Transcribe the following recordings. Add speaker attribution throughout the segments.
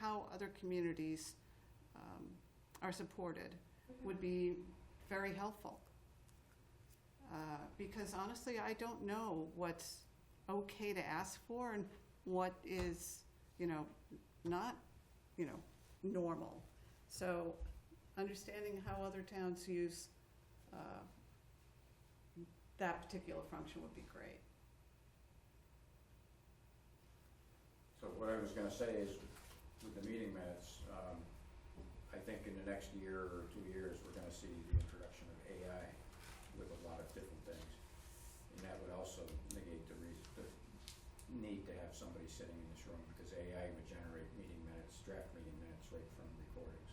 Speaker 1: how other communities um, are supported would be very helpful. Uh, Because honestly, I don't know what's okay to ask for and what is, you know, not, you know, normal. So understanding how other towns use uh, that particular function would be great.
Speaker 2: So what I was gonna say is, with the meeting minutes, um, I think in the next year or two years, we're gonna see the introduction of AI with a lot of different things. And that would also negate the reason, the need to have somebody sitting in this room, because AI would generate meeting minutes, draft meeting minutes right from recordings.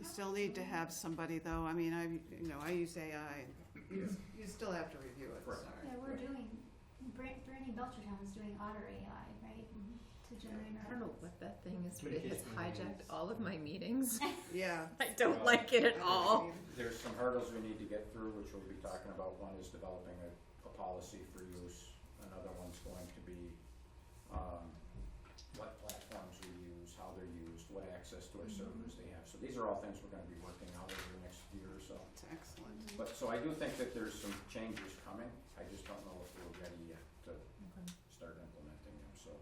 Speaker 1: You still need to have somebody, though, I mean, I, you know, I use AI, you you still have to review it,
Speaker 2: Right.
Speaker 1: sorry.
Speaker 3: Yeah, we're
Speaker 2: Right.
Speaker 3: doing, Bra- Brandy Belchertown's doing Otter AI, right,
Speaker 1: Mm-hmm.
Speaker 3: to generate
Speaker 4: I
Speaker 3: our.
Speaker 4: don't know what that thing is, but it
Speaker 2: Communication
Speaker 4: has hijacked
Speaker 2: meetings.
Speaker 4: all of my meetings.
Speaker 1: Yeah.
Speaker 4: I don't like it at all.
Speaker 2: There's some hurdles we need to get through, which we'll be talking about. One is developing a, a policy for use. Another one's going to be, um, what platforms we use, how they're used, what access to our servers they have. So these are all things we're gonna be working out over the next year or so.
Speaker 1: It's excellent.
Speaker 2: But, so I do think that there's some changes coming. I just don't know if we're ready yet to start implementing them, so,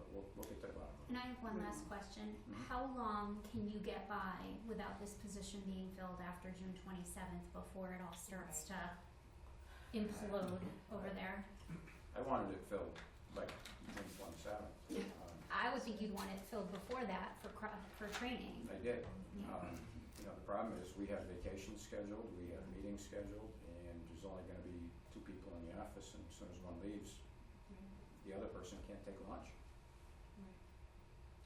Speaker 2: but we'll, we'll get to the bottom of it.
Speaker 3: And I have one last question.
Speaker 1: Mm-hmm.
Speaker 2: Mhm.
Speaker 3: How long can you get by without this position being filled after June twenty-seventh before it all starts to implode over there?
Speaker 2: I wanted it filled like June twenty-seventh. Um,
Speaker 3: I would think you'd want it filled before that for cr- for training.
Speaker 2: I did.
Speaker 1: Uh,
Speaker 2: Um, you know, the problem is we have vacations scheduled, we have meetings scheduled, and there's only gonna be two people in the office, and as soon as one leaves, the other person can't take lunch.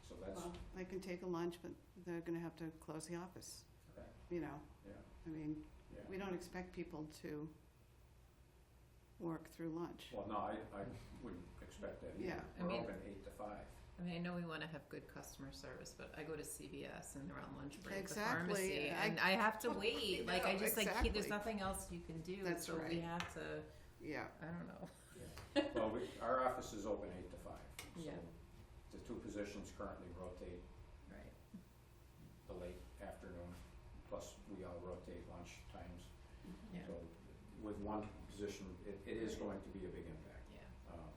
Speaker 2: So that's,
Speaker 1: Well, They can take a lunch, but they're gonna have to close the office,
Speaker 2: Right.
Speaker 1: you know?
Speaker 2: Yeah.
Speaker 1: I mean,
Speaker 2: yeah.
Speaker 1: we don't expect people to work through lunch.
Speaker 2: Well, no, I, I wouldn't expect that either.
Speaker 1: Yeah,
Speaker 4: I
Speaker 2: We're
Speaker 4: mean-
Speaker 2: open eight to five.
Speaker 4: I mean, I know we want to have good customer service, but I go to CVS and they're on lunch break,
Speaker 1: Exactly,
Speaker 4: the pharmacy,
Speaker 1: I-
Speaker 4: and I have to wait. Like, I
Speaker 1: Yeah,
Speaker 4: just like, he- there's
Speaker 1: exactly.
Speaker 4: nothing else you can do,
Speaker 1: That's
Speaker 4: so we
Speaker 1: right.
Speaker 4: have to,
Speaker 1: Yeah,
Speaker 4: I don't know.
Speaker 2: Well, we, our office is open eight to five, so
Speaker 4: Yeah.
Speaker 2: the two positions currently rotate
Speaker 4: Right.
Speaker 2: the late afternoon, plus we all rotate lunch times.
Speaker 4: Yeah.
Speaker 2: So with one position, it, it is going to be a big impact.
Speaker 4: Yeah.
Speaker 2: Um,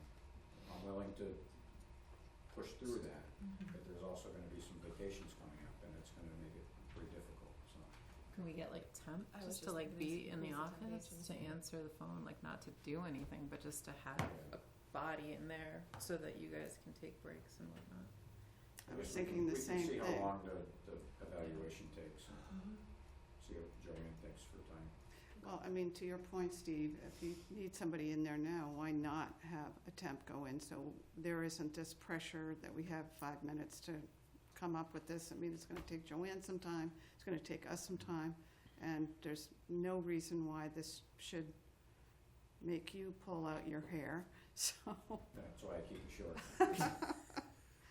Speaker 2: I'm willing to push through that,
Speaker 5: Mm-hmm.
Speaker 2: but there's also gonna be some vacations coming up and it's gonna make it pretty difficult, so.
Speaker 4: Can we get like temp
Speaker 5: I was
Speaker 4: just to
Speaker 5: just
Speaker 4: like
Speaker 5: thinking
Speaker 4: be
Speaker 5: s-
Speaker 4: in the
Speaker 5: who's the temp
Speaker 4: office
Speaker 5: agent?
Speaker 4: to answer the phone, like not to do anything, but just to have a body in there so that you guys can take breaks and whatnot.
Speaker 1: I was
Speaker 2: guess we
Speaker 1: thinking the
Speaker 2: can-
Speaker 1: same
Speaker 2: We can see
Speaker 1: thing.
Speaker 2: how long the, the evaluation takes and see what Joanne thinks for time.
Speaker 1: Well, I mean, to your point, Steve, if you need somebody in there now, why not have a temp go in? So there isn't this pressure that we have five minutes to come up with this. I mean, it's gonna take Joanne some time, it's gonna take us some time, and there's no reason why this should make you pull out your hair, so.
Speaker 2: That's why I keep it short.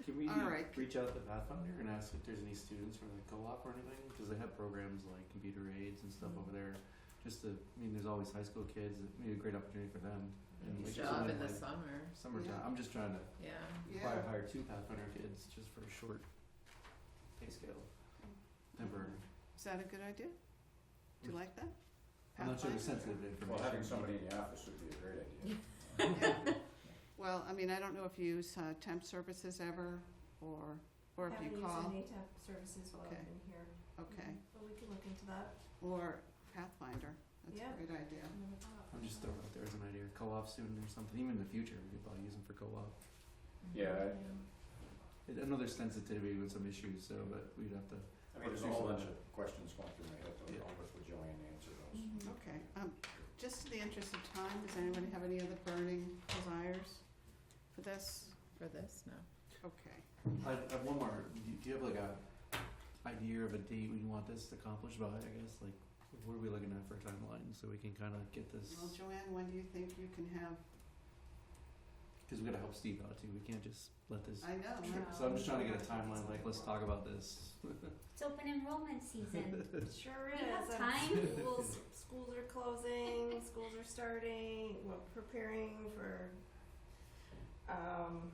Speaker 6: Can we
Speaker 1: All right.
Speaker 6: reach out to Pathfinder and ask if there's any students from the co-op or anything? Because they have programs like computer aids and stuff over there. Just to, I mean, there's always high school kids. It may be a great opportunity for them. And like,
Speaker 4: Job in the
Speaker 6: someone like
Speaker 4: summer,
Speaker 6: summertime.
Speaker 1: Yeah.
Speaker 6: I'm just trying to
Speaker 4: yeah.
Speaker 6: probably hire two Pathfinder kids just for a short pay scale. Temporary.
Speaker 1: Is that a good idea? Do you like that?
Speaker 6: I'm not sure
Speaker 1: Pathfinder?
Speaker 6: they're sensitive to information.
Speaker 2: Well, having somebody in the office would be a great idea.
Speaker 1: Yeah. Well, I mean, I don't know if you use uh, temp services ever, or, or if you call,
Speaker 5: Haven't used any temp services while
Speaker 1: Okay.
Speaker 5: I've been here,
Speaker 1: okay,
Speaker 5: but we can look into that.
Speaker 1: or Pathfinder, that's
Speaker 5: Yeah.
Speaker 1: a great idea.
Speaker 5: I never thought of
Speaker 4: Mm-hmm.
Speaker 6: I'm
Speaker 5: that.
Speaker 6: just throwing out there as an idea. Co-op student or something. Even in the future, we could probably use them for co-op.
Speaker 2: Yeah, I-
Speaker 6: I know there's sensitivity with some issues, so but we'd have to.
Speaker 2: I mean, there's a whole bunch of questions going through my head, so
Speaker 6: Yeah.
Speaker 2: I'll work with Joanne to answer those.
Speaker 1: Okay, um, just in the interest of time, does anybody have any other burning desires for this?
Speaker 4: For this, no.
Speaker 1: Okay,
Speaker 6: I I have one more. Do you- do you have like a idea of a date when you want this accomplished by? I guess like what are we looking at for a timeline so we can kind of get this
Speaker 1: well, Joanne, when do you think you can have,
Speaker 6: because we got to help Steve out too. We can't just let this.
Speaker 1: I know,
Speaker 6: trip. So I'm just trying to get a timeline. Like let's talk about this.
Speaker 3: It's open enrollment season.
Speaker 5: Sure
Speaker 3: We have
Speaker 5: is. and
Speaker 3: time.
Speaker 5: Schools, schools are closing, schools are starting, we're preparing for, um,